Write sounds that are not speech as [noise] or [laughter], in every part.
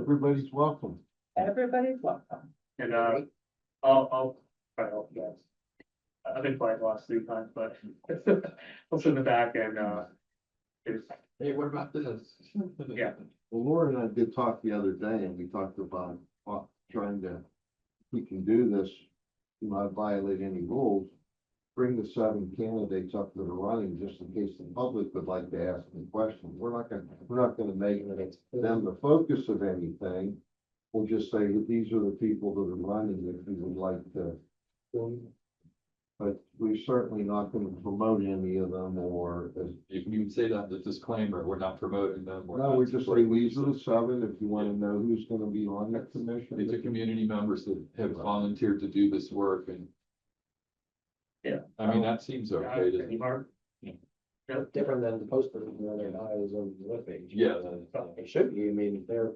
everybody's welcome. Everybody's welcome. And, uh, I'll, I'll try to help you guys. I- I've been quiet the last three times, but [laughs] I'll sit in the back and, uh, it's, Hey, what about this? Yeah. Well, Laura and I did talk the other day and we talked about uh, trying to, if we can do this, not violate any rules. Bring the seven candidates up to the running just in case the public would like to ask them questions. We're not gonna, we're not gonna make them the focus of anything. We'll just say that these are the people that are running that we would like to, but we're certainly not gonna promote any of them or as You can say that, the disclaimer, we're not promoting them. No, not we just say supporting these them. are the seven, if you wanna know who's gonna be on the These are commission. community members that have volunteered to do this work and. Yeah. I mean, that seems I, okay to, any harm? Yep, different than the posting of their bios on the webpage. Yeah. Uh, It should be, I mean, if they're,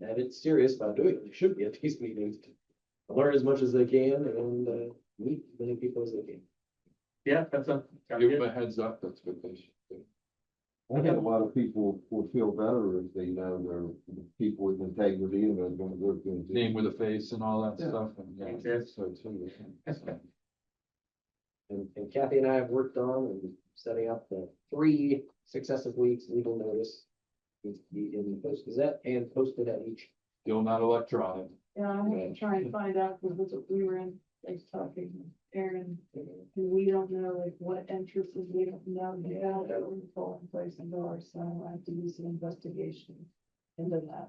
that it's serious about doing it, they should be at these meetings. to Learn as much as they can and, uh, meet as many people as they can. yeah, that's a. sounds give them good. a heads up, that's what they should do. I think a lot of people will feel better if they know they're people with integrity and they're gonna go through. and do- Name with a face and all that Yeah. stuff and yeah. Exactly. so too. And and Kathy and I have worked on and setting up the three successive weeks legal notice. needs to be In the Post Gazette and posted at each. Still not electronic. Yeah, I'm gonna try and find out, because that's what we were in, like, talking, with Aaron, and we don't know, like, what entrances, we don't know, they don't know what the polling place and doors, so I have to do some investigation into that.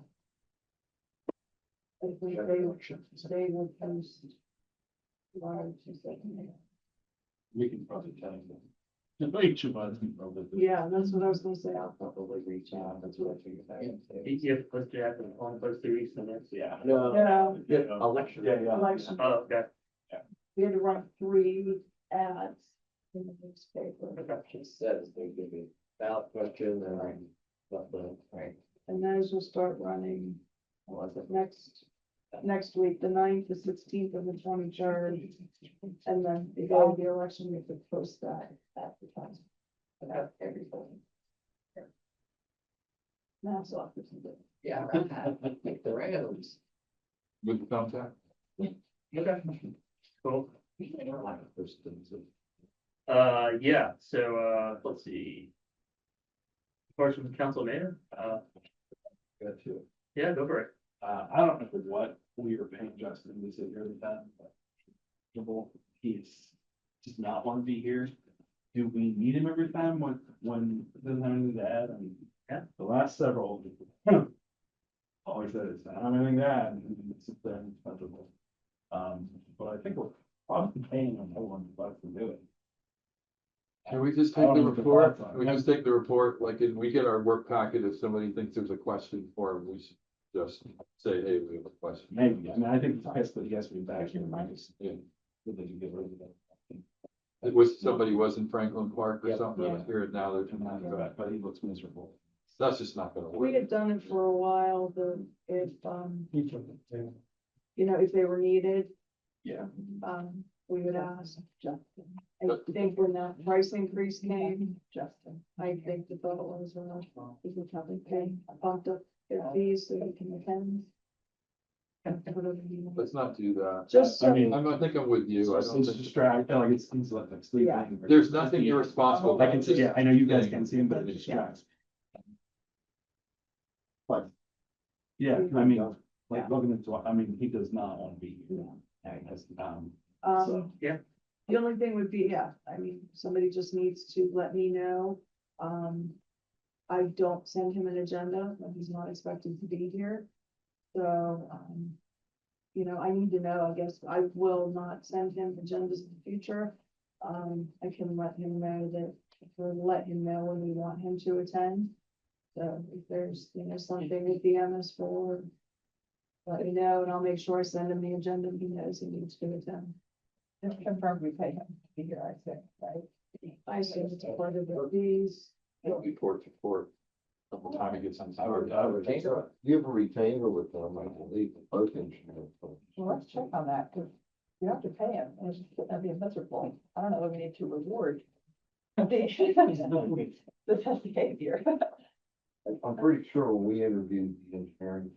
I think they, they will post. Large, is that- We can probably tell them. yeah, that's what I was gonna say, I'll probably reach out, that's what I figured out. ETF plus Jack and one plus three, so that's. Yeah. No, Yeah, election. Yeah, election, Oh, okay, we had to run three ads in the newspaper, She says they're gonna be ballot question and. But, but, right. and those will start running, what was it, next, next week, the ninth, the sixteenth, and the twenty-third. And then if all the election, we could post that at the time, about everything. Now, so I can do it. Yeah. Make the rounds. With thumbtack? okay, cool. I don't like the first thing, so- Uh, yeah, so, uh, let's see. Question from council mayor, uh, Good too. yeah, go for it. Uh, I don't know what we were paying Justin to sit here with that, but. He's just not want to be here. Do we need him every time when, when it doesn't have anything to add? I mean, Yeah. The last several. [laughs] Always says, I don't have anything to add, and it's been comfortable. Um, but I think we're probably paying him more than bucks to do it. Can we just I take don't the know what the report? thoughts are. We just take the report, like, and we get our work packet, if somebody thinks there's a question for him, we should just say, hey, we have a question. Maybe, I mean, I think it's nice, but he has to be back here, minus. Yeah. That they can get rid of that. It was, somebody was in Franklin Park or Yeah. something, Yeah. here and now And I they're, but he looks miserable. that's just not gonna We work. had done it for a while, the, if, um, you know, if they were needed. Yeah. Um, we would ask. Justin. I think when that price increase came, Justin, I think the thought was, well, we can probably pay, bumped up their fees so we can attend. And whatever you want. Let's not do that. Just I so- mean, I'm, I think I'm with you. I It's don't it's think, distracting, like it's things like like sleeping. or- there's nothing irresponsible. I can see, yeah, I know you guys can see him, but it distracts. But. Yeah, I mean, like looking into, I mean, he does not want to be here. No. And that's, um, Um. Yeah. The only thing would be, yeah, I mean, somebody just needs to let me know, um. I don't send him an agenda, but he's not expected to be here, so, um. You know, I need to know, I guess, I will not send him agendas in the future. Um, I can let him know that, or let him know when we want him to attend. So if there's, you know, something with the MS four. Let me know, and I'll make sure I send him the agenda, he knows he needs to attend. Just confirm we pay him to be here, I think, right? I assume it's part of the fees. It'll be port to port. Couple time it gets on. I would, I would. Retainer. You have a retainer with them, I believe, both engineers. Well, let's check on that, because you have to pay him, and it's just gonna be miserable. I don't know, that we need to reward. The [laughs] the behavior. I'm pretty sure when we interviewed the engineering